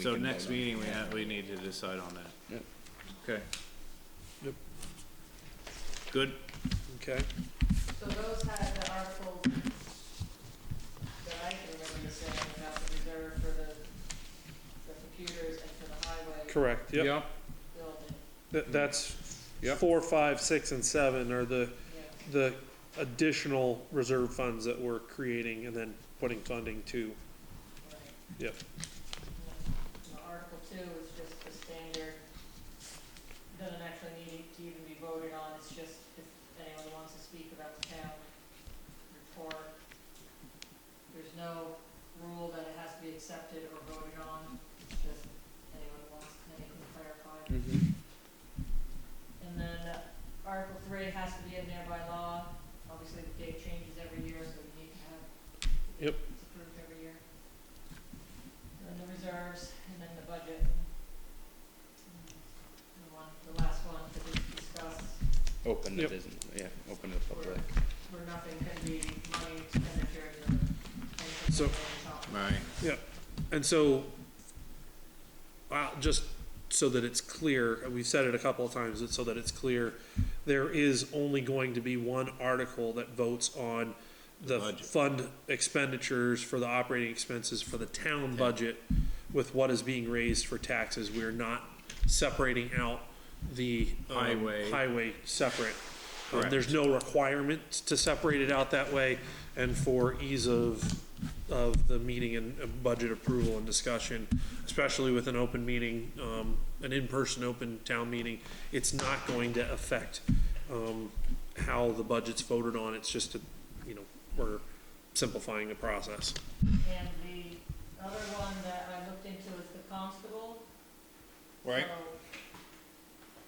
So can next vote on it. meeting, we have, we need to decide on that. Yep. Okay. Yep. Good, Okay, So those had the article that I can remember saying about the reserve for the, the computers and for the highway correct, yep. Yeah, building, Th- that's Yep. four, five, six, and seven are the, yeah. the additional reserve funds that we're creating and then putting funding to. right. Yep. And the Article two is just the standard, doesn't actually need to even be voted on, it's just if anyone wants to speak about the town report. There's no rule that it has to be accepted or voted on, it's just anyone who wants, anything clarified. And then uh, Article three has to be in there by law, obviously the date changes every year, so we need to have. Yep. It's approved every year. And then the reserves, and then the budget. And the one, the last one that we discussed, open the Yep. business, yeah, open to the public. where nothing can be money expenditure, or anything So- on top. right. And so, uh, just so that it's clear, and we've said it a couple of times, it's so that it's clear, there is only going to be one article that votes on the Budget. fund expenditures for the operating expenses for the town budget with what is being raised for taxes. We're not separating out the. um, Highway. Highway separate. Um, Correct. There's no requirement to separate it out that way, and for ease of, of the meeting and uh, budget approval and discussion, especially with an open meeting, um, an in-person open town meeting, it's not going to affect, um, how the budget's voted on, it's just a, you know, we're simplifying the process. And the other one that I looked into is the constable. Right.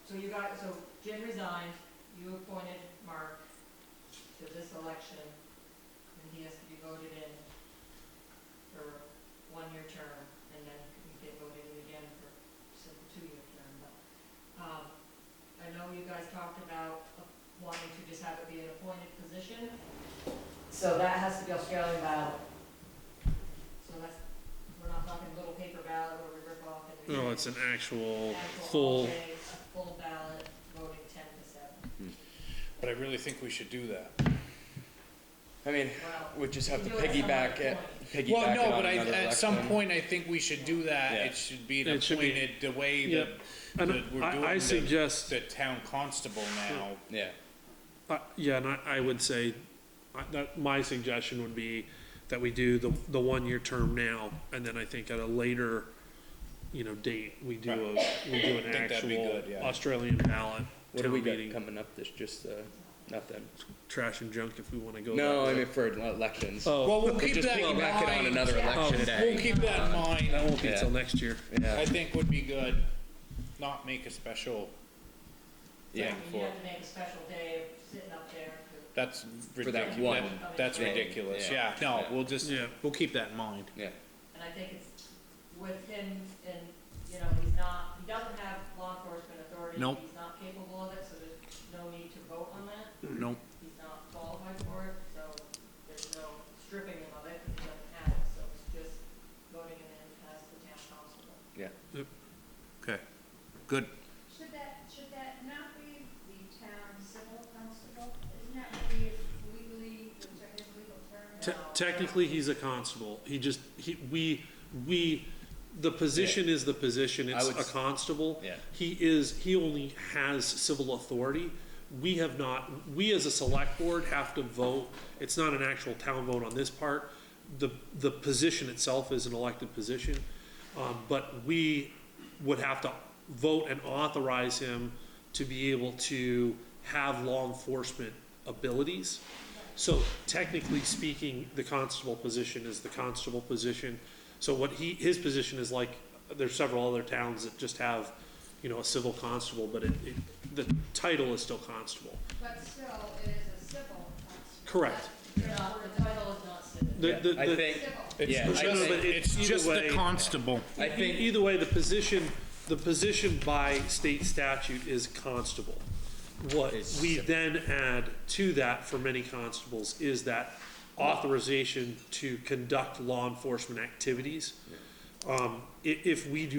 So- So you got, so Jim resigned, you appointed Mark to this election, and he has to be voted in for one-year term, and then you get voted in again for a two-year term, but, um, I know you guys talked about wanting to just have it be an appointed position, so that has to be Australian ballot. So that's, we're not talking little paper ballot where we rip off and. No, it's an actual Actual full, all-day, a Full ballot, voting ten to seven. But I really think we should do that. I mean, Wow. we just have to You do it at piggyback some it, piggyback it Well, no, on but I, another at some election. point, I think we should do that. Yeah. It should be an It should be- appointed, the way that, Yep. and that we're doing I, I the, suggest. the town constable now. Yeah, Uh, yeah, and I, I would say, I- that, my suggestion would be that we do the, the one-year term now, and then I think at a later, you know, date, we do a, we do an Think that'd be actual good, yeah. Australian ballot what do town we got meeting, coming up, This just, uh, nothing? trash and junk if we wanna go. No, that I way. mean for elections. Oh. Well, we'll keep Just that in piggyback it on mind. another Yeah. election Oh. day. We'll keep that in That mind. won't be Yeah. till next year. Yeah, I think would be good, not make a special yeah, thing You for, have to make a special day of sitting up there. for- that's For that ridiculous. one That's thing, ridiculous, yeah. yeah. No, Yeah. we'll just, Yeah. we'll keep that in mind. yeah, And I think it's with him and, you know, he's not, he doesn't have law enforcement authority. Nope. He's not capable of it, so there's no need to vote on that. No, He's not qualified for it, so there's no stripping him of it because he doesn't have it. So it's just voting him in as the town constable. yeah. Okay, good. Should that, should that not be the town civil constable? Isn't that really legally, the ter- his legal term? Te- Technically, he's a constable. He just, he, we, we, the position is the position. I It's would a s- constable. Yeah. He is, he only has civil authority. We have not, we as a select board have to vote. It's not an actual town vote on this part. The, the position itself is an elected position. Um, but we would have to vote and authorize him to be able to have law enforcement abilities. So technically speaking, the constable position is the constable position. So what he, his position is like, there's several other towns that just have, you know, a civil constable, but it, it, the title is still constable. But still, it is a civil constable. Correct. You're not- The title is not civil. The- the- I the- think, Civil. yeah, it's I just, but think, it- it's either just the way- constable. I e- think, Either way, the position, the position by state statute is constable. What Is we civil. then add to that for many constables is that authorization to conduct law enforcement activities. Um, i- if we do